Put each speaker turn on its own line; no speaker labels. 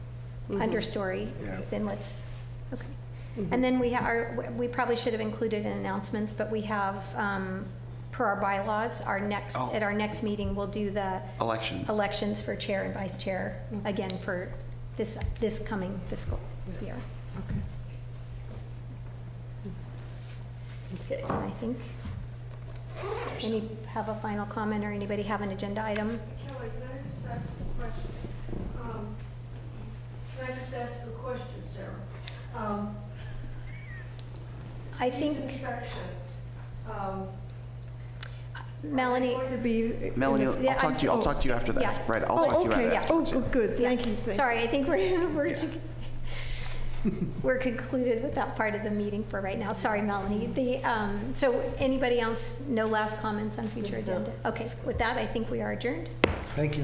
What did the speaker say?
understory,
Yeah.
then let's, okay. And then we are, we probably should have included in announcements, but we have, um, per our bylaws, our next,
Oh.
at our next meeting, we'll do the
Elections.
elections for chair and vice chair, again, for this, this coming fiscal year.
Okay.
And I think, any, have a final comment, or anybody have an agenda item?
Kelly, can I just ask a question? Um, Can I just ask a question, Sarah? Um,
I think,
These inspections, um,
Melanie,
Or-
To be-
Melanie,
Yeah,
I'll
I'm
talk to you, I'll
so-
talk to you after
yeah.
that, right? I'll talk
Oh,
to you
okay,
after.
yeah.
oh, oh, good, thank you. thank-
sorry, I think we're, we're, we're concluded with that part of the meeting for right now. Sorry, Melanie. The, um, so anybody else, no last comments on future agenda? Okay, with that, I think we are adjourned.
Thank you.